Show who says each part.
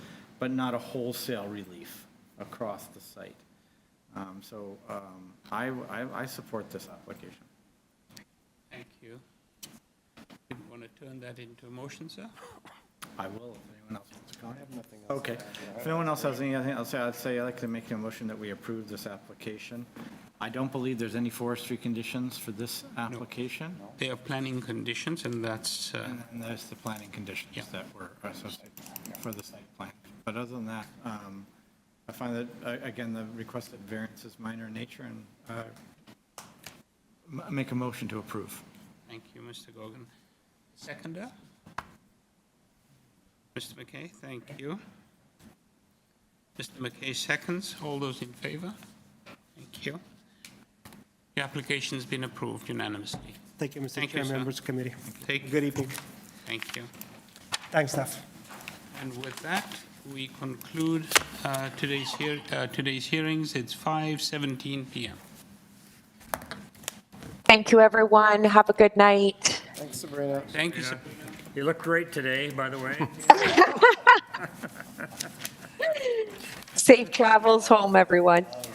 Speaker 1: but not a wholesale relief across the site. Um, So um, I, I- I support this application.
Speaker 2: Thank you. You want to turn that into a motion, sir?
Speaker 1: I will, if anyone else wants to comment. I have nothing else. Okay. If anyone else has anything else, I'd say, I'd like to make a motion that we approve this application. I don't believe there's any forestry conditions for this application.
Speaker 2: They are planning conditions, and that's, uh,
Speaker 1: And then there's the planning conditions
Speaker 2: Yeah.
Speaker 1: that were associated for the site plan. But other than that, um, I find that, uh, again, the requested variance is minor in nature and uh, m- make a motion to approve.
Speaker 2: thank you, Mr. Gogan. Seconder? Mr. McKay, thank you. Mr. McKay seconds. All those in favor? Thank you. Your application's been approved unanimously.
Speaker 3: Thank you, Mr.
Speaker 2: Thank you,
Speaker 3: Chair,
Speaker 2: sir.
Speaker 3: members of committee.
Speaker 2: Take,
Speaker 3: Good evening.
Speaker 2: thank you.
Speaker 3: Thanks, staff.
Speaker 2: And with that, we conclude uh, today's hear, uh, today's hearings. It's 5:17 PM.
Speaker 4: Thank you, everyone. Have a good night.
Speaker 5: Thanks, Sabrina.
Speaker 2: Thank you, sir.
Speaker 6: You look great today, by the way.
Speaker 4: Safe travels home, everyone.